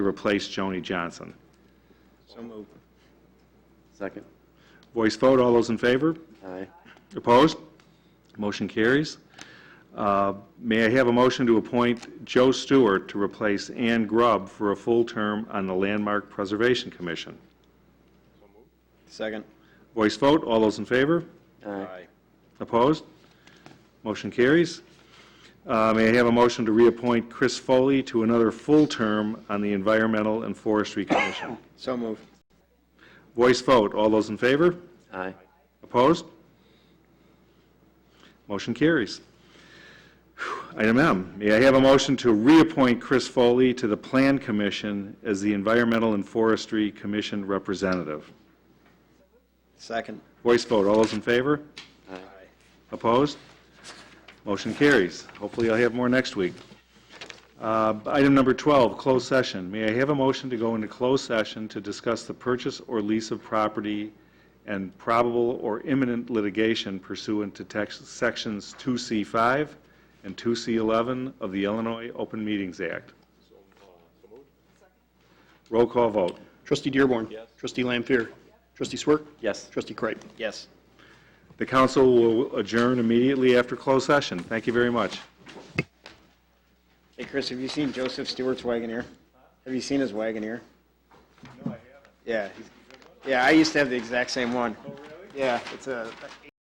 replace Joni Johnson. So moved. Second. Voice vote, all those in favor? Aye. Opposed? Motion carries. Uh, May I have a motion to appoint Joe Stewart to replace Ann Grubb for a full term on the Landmark Preservation Commission? Second. Voice vote, all those in favor? Aye. Opposed? Motion carries. Uh, May I have a motion to reappoint Chris Foley to another full term on the Environmental and Forestry Commission? So moved. Voice vote, all those in favor? Aye. Opposed? Motion carries. Whew, Item M, may I have a motion to reappoint Chris Foley to the Plan Commission as the Environmental and Forestry Commission representative? Second. Voice vote, all those in favor? Aye. Opposed? Motion carries. Hopefully, I'll have more next week. Uh, Item number 12, closed session. May I have a motion to go into closed session to discuss the purchase or lease of property and probable or imminent litigation pursuant to tex- Sections 2C5 and 2C11 of the Illinois Open Meetings Act? Roll call vote. Trustee Dearborn. Trustee Lampier. Trustee Swerk. Yes. Trustee Kripe. Yes. The council will adjourn immediately after closed session. Thank you very much. Hey, Chris, have you seen Joseph Stewart's Wagoneer? Have you seen his Wagoneer? No, I haven't. Yeah. he's- Yeah, I used to have the exact same one. Oh, really? Yeah, it's a